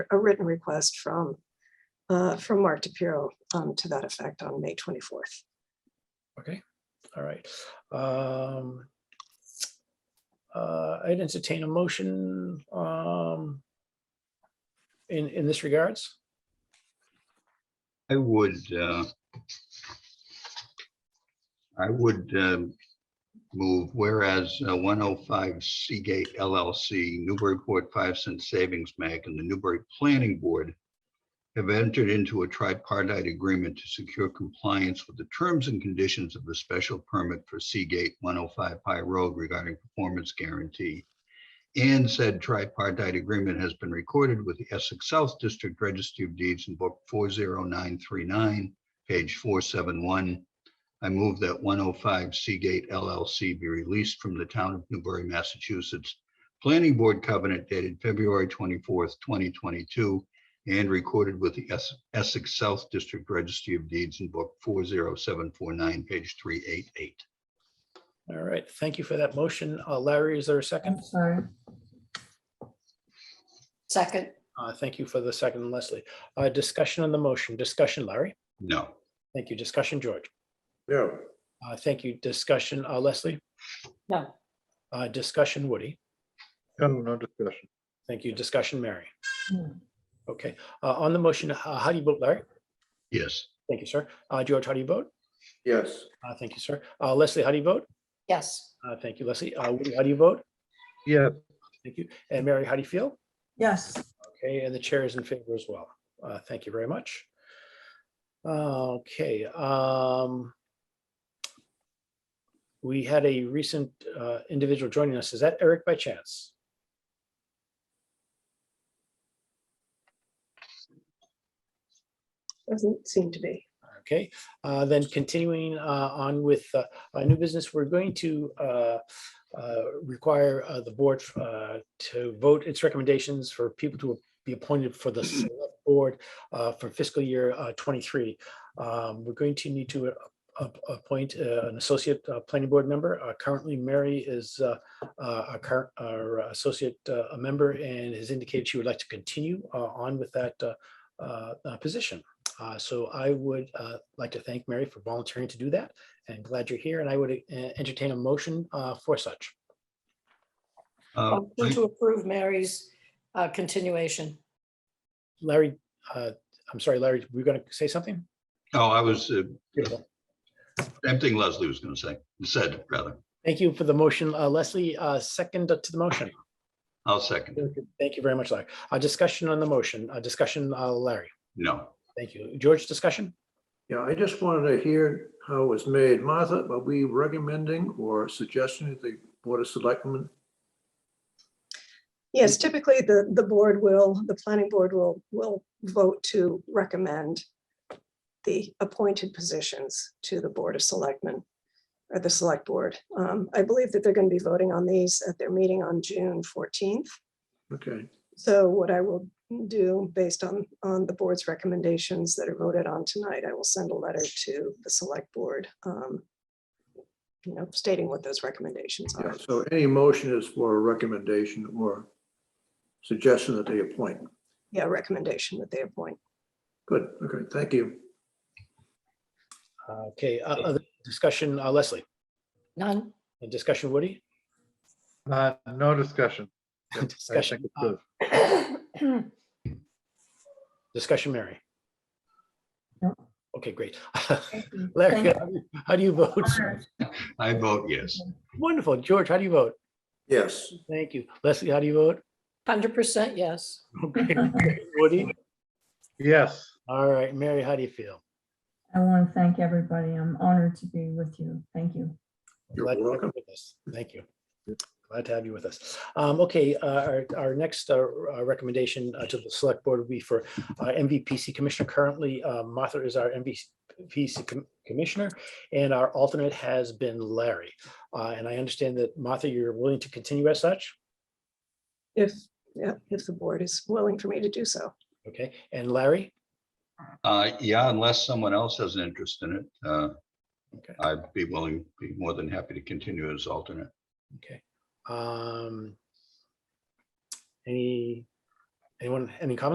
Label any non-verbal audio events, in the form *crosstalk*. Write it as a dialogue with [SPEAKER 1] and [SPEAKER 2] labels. [SPEAKER 1] a written request from, uh, from Mark DePiero um, to that effect on May 24th.
[SPEAKER 2] Okay, all right. Um, uh, I'd entertain a motion um, in, in this regards.
[SPEAKER 3] I would, uh, I would um, move whereas uh, 105 Seagate LLC, Newburyport Five Cent Savings Bank and the Newbury Planning Board have entered into a tripartite agreement to secure compliance with the terms and conditions of the special permit for Seagate 105 Pie Road regarding performance guarantee. And said tripartite agreement has been recorded with the Essex South District Registry of Deeds in Book 40939, page 471. I move that 105 Seagate LLC be released from the town of Newbury, Massachusetts Planning Board covenant dated February 24th, 2022, and recorded with the Es- Essex South District Registry of Deeds in Book 40749, page 388.
[SPEAKER 2] All right, thank you for that motion. Uh, Larry, is there a second?
[SPEAKER 4] I'm sorry.
[SPEAKER 5] Second,
[SPEAKER 2] Uh, Thank you for the second, Leslie. Uh, Discussion on the motion, discussion, Larry.
[SPEAKER 3] No.
[SPEAKER 2] Thank you, discussion, George.
[SPEAKER 6] no,
[SPEAKER 2] Uh, Thank you, discussion, uh, Leslie.
[SPEAKER 5] no,
[SPEAKER 2] Uh, Discussion, Woody.
[SPEAKER 7] No, no discussion.
[SPEAKER 2] Thank you, discussion, Mary.
[SPEAKER 4] Hmm.
[SPEAKER 2] Okay, uh, on the motion, uh, how do you vote, Larry?
[SPEAKER 3] Yes.
[SPEAKER 2] Thank you, sir. Uh, George, how do you vote?
[SPEAKER 6] yes,
[SPEAKER 2] Uh, Thank you, sir. Uh, Leslie, how do you vote?
[SPEAKER 5] yes,
[SPEAKER 2] Uh, Thank you, Leslie. Uh, Woody, How do you vote?
[SPEAKER 7] Yeah,
[SPEAKER 2] Thank you. And Mary, how do you feel?
[SPEAKER 4] Yes,
[SPEAKER 2] Okay, and the chair is in favor as well. Uh, Thank you very much. Uh, Okay. um, We had a recent uh, individual joining us. Is that Eric by chance?
[SPEAKER 1] Doesn't seem to be.
[SPEAKER 2] Okay, uh, then continuing uh, on with uh, uh, new business, we're going to uh, uh, require uh, the board uh, to vote its recommendations for people to be appointed for the select board uh, for fiscal year uh, 23. Um, We're going to need to uh, ap- appoint uh, an associate uh, planning board member. Uh, Currently, Mary is uh, uh, our current our associate uh, a member and has indicated she would like to continue uh, on with that uh, uh, uh, position. Uh, So I would uh, like to thank Mary for volunteering to do that and glad you're here. And I would uh, entertain a motion uh, for such.
[SPEAKER 3] Uh,
[SPEAKER 5] motion to approve Mary's uh, continuation.
[SPEAKER 2] Larry, uh, I'm sorry, Larry, we're going to say something?
[SPEAKER 3] Oh, I was, uh,
[SPEAKER 2] Beautiful.
[SPEAKER 3] same thing Leslie was going to say, said rather.
[SPEAKER 2] Thank you for the motion, uh, Leslie. uh, Second to the motion.
[SPEAKER 3] I'll second.
[SPEAKER 2] Thank you very much, Larry. A discussion on the motion, a discussion, uh, Larry.
[SPEAKER 3] No.
[SPEAKER 2] Thank you. George, discussion?
[SPEAKER 6] yeah, I just wanted to hear how it was made. Martha, are we recommending or suggesting that the Board of Selectmen?
[SPEAKER 1] Yes, typically the, the board will, the planning board will, will vote to recommend the appointed positions to the Board of Selectmen or the Select Board. Um, I believe that they're going to be voting on these at their meeting on June 14th.
[SPEAKER 6] Okay,
[SPEAKER 1] So what I will do, based on, on the board's recommendations that are voted on tonight, I will send a letter to the select board. um, You know, stating what those recommendations
[SPEAKER 6] yeah,
[SPEAKER 1] are.
[SPEAKER 6] so any motion is for a recommendation or suggestion that they appoint.
[SPEAKER 1] Yeah, recommendation that they appoint.
[SPEAKER 6] Good, okay, thank you.
[SPEAKER 2] Uh, Okay, uh, other discussion, uh, Leslie,
[SPEAKER 5] None,
[SPEAKER 2] and discussion, Woody?
[SPEAKER 7] uh, no discussion. Yep, I think
[SPEAKER 2] *laughs* Discussion,
[SPEAKER 7] it's
[SPEAKER 2] uh,
[SPEAKER 7] good.
[SPEAKER 2] Discussion, Mary?
[SPEAKER 4] No.
[SPEAKER 2] Okay, great. *laughs*
[SPEAKER 4] thank you.
[SPEAKER 2] Larry,
[SPEAKER 4] Thank
[SPEAKER 2] how do you- how do you vote? *laughs*
[SPEAKER 3] I vote yes.
[SPEAKER 2] Wonderful. George, how do you vote?
[SPEAKER 6] Yes,
[SPEAKER 2] Thank you. Leslie, how do you vote? *laughs*
[SPEAKER 5] hundred percent yes.
[SPEAKER 2] Okay. Woody?
[SPEAKER 7] Yes,
[SPEAKER 2] All right, Mary, how do you feel?
[SPEAKER 4] I want to thank everybody. I'm honored to be with you. Thank you.
[SPEAKER 6] You're
[SPEAKER 2] Glad to have you
[SPEAKER 6] welcome.
[SPEAKER 2] with us. Thank you. Glad to have you with us. Um, okay, uh, our, our next, uh, uh, recommendation uh, to the select board would be for, uh, MVPC commissioner. Currently, uh, Martha is our MVPC com- commissioner and our alternate has been Larry. Uh, and I understand that Martha, you're willing to continue as such?
[SPEAKER 1] If, yeah, if the board is willing for me to do so.
[SPEAKER 2] Okay, and Larry?
[SPEAKER 3] Uh, yeah, unless someone else has an interest in it, uh,
[SPEAKER 2] Okay.
[SPEAKER 3] I'd be willing, be more than happy to continue as alternate.
[SPEAKER 2] Okay. Um, any, anyone, any comments?